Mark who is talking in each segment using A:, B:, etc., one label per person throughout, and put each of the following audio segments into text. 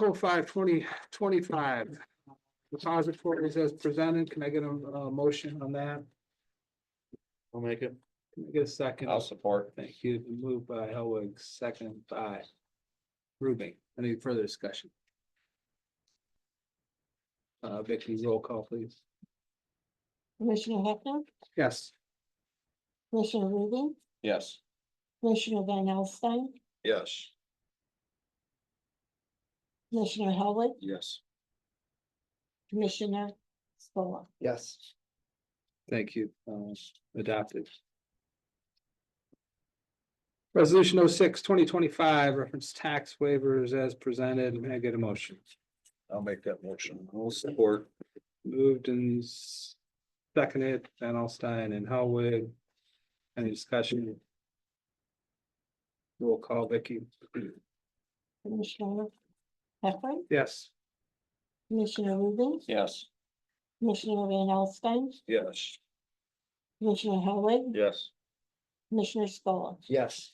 A: oh five twenty twenty-five. Depositories as presented, can I get a, a motion on that?
B: I'll make it.
A: Can I get a 2nd
B: support.
A: Thank you. Moved by Helwig, second by Ruby. Any further discussion? Uh, Vicky, roll call, please.
C: Commissioner Heckler,
A: Yes.
C: Commissioner Rubin,
B: Yes.
C: Commissioner Van Alstine,
B: Yes.
C: Commissioner Howard,
B: Yes.
C: Commissioner Scola.
A: Yes. Thank you, um, adopted. Resolution 06 2025 reference tax waivers as presented, may I get a motion?
B: I'll make that motion. I'll support.
A: Moved and s- seconded, Van Alstine and Howard. Any discussion? Roll call, Vicky,
C: Commissioner Heckler,
A: yes.
C: Commissioner Rubin,
B: Yes.
C: Commissioner Van Alstine,
B: Yes.
C: Commissioner Howard,
B: Yes.
C: Commissioner Scola.
A: Yes.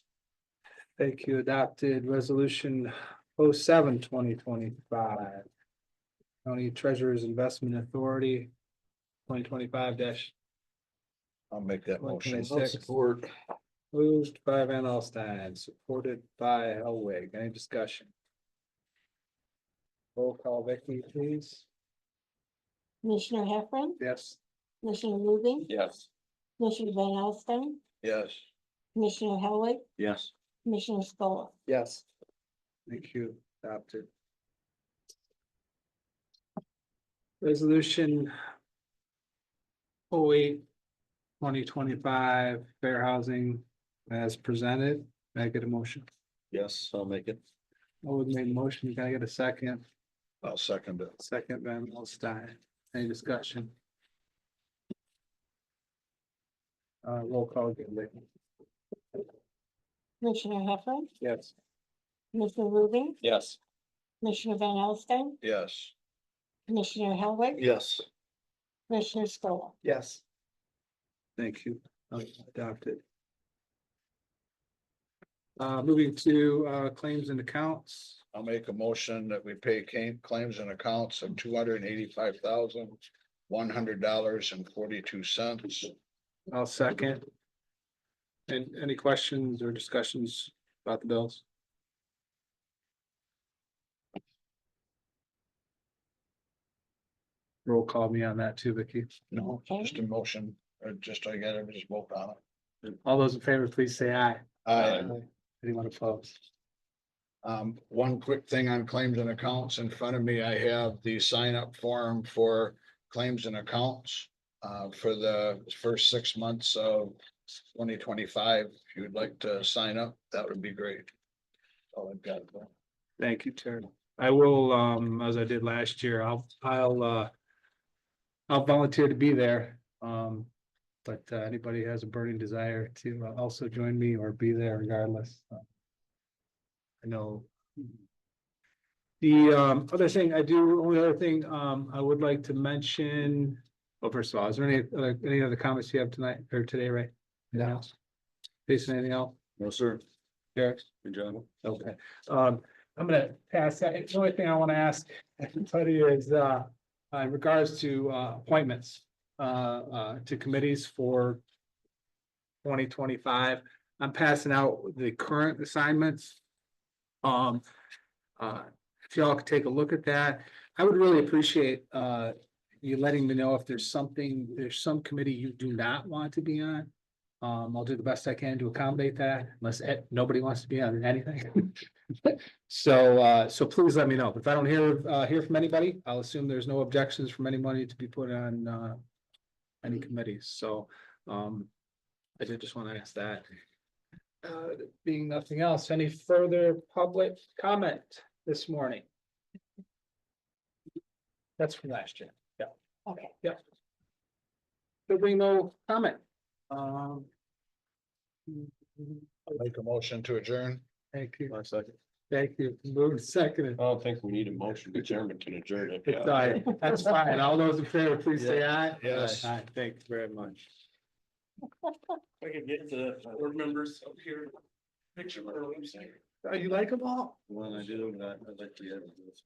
A: Thank you, adopted resolution 07 seven twenty twenty-five. County Treasurer's Investment Authority, twenty twenty-five dash
B: I'll make that motion.
A: 126. moved by Van Alstine, supported by Elwig. Any discussion? Roll call, Vicky, please.
C: Commissioner Heckler,
A: Yes.
C: Commissioner Rubin,
B: Yes.
C: Commissioner Van Alstine,
B: Yes.
C: Commissioner Howard,
B: Yes.
C: Commissioner Scola.
A: Yes. Thank you, adopted. Resolution. 08 2025 fair housing as presented. Can I get a motion?
B: Yes, I'll make it.
A: I would make a motion. Can I get a second?
B: I'll second it.
A: Second, Van Alstine. Any discussion? Uh, roll call again, Lee.
C: Commissioner Heckler,
A: Yes.
C: Commissioner Rubin,
B: Yes.
C: Commissioner Van Alstine,
B: Yes.
C: Commissioner Howard,
B: Yes.
C: Commissioner Scola.
A: Yes. Thank you, Uh, adopted. Uh, moving to, uh, claims and accounts,
B: I'll make a motion that we pay ca- claims and accounts of two hundred and eighty-five thousand, one hundred dollars and forty-two cents.
A: I'll second. And any questions or discussions about the bills? Roll call me on that too, Vicky.
B: No,
C: Okay.
B: just a motion, or just I gotta just vote on it.
A: All those in favor, please say aye.
B: Aye.
A: Anyone opposed?
B: Um, one quick thing on claims and accounts. In front of me, I have the sign up form for claims and accounts. Uh, for the first six months of twenty twenty five, if you'd like to sign up, that would be great. All I've got.
A: Thank you, Terry. I will, um, as I did last year, I'll, I'll, uh. I'll volunteer to be there, um, but uh, anybody has a burning desire to uh, also join me or be there regardless. uh, I know. The, um, other thing I do, only other thing, um, I would like to mention, well, first of all, is there any, uh, any other comments you have tonight or today, Ray? Anything else? Jason, anything else?
B: No, sir.
A: Derek?
B: Good job.
A: Okay, um, I'm gonna pass that. The only thing I wanna ask everybody is, uh, uh, in regards to, uh, appointments, uh, uh, to committees for twenty twenty-five, I'm passing out the current assignments. Um, uh, if y'all could take a look at that, I would really appreciate, uh, you letting me know if there's something, there's some committee you do not want to be on. Um, I'll do the best I can to accommodate that unless eh, nobody wants to be on anything. So, uh, so please let me know. If I don't hear, uh, hear from anybody, I'll assume there's no objections from anybody to be put on, uh, any committees. So, um, I did just want to ask that. Uh, being nothing else, any further public comment this morning? That's from last year. Yeah.
C: Okay.
A: There being no comment. Um,
B: Make a motion to adjourn.
A: thank you.
D: One second.
A: Thank you. Move seconded.
D: I don't think we need a motion, the chairman can adjourn it.
A: It's aye. That's fine. All those in favor, please say aye.
B: Yes.
A: Aye. Thank you very much.
E: I could get the board members up here. Picture.
F: Oh, you like them all?
B: Well, I do, but I'd like to get.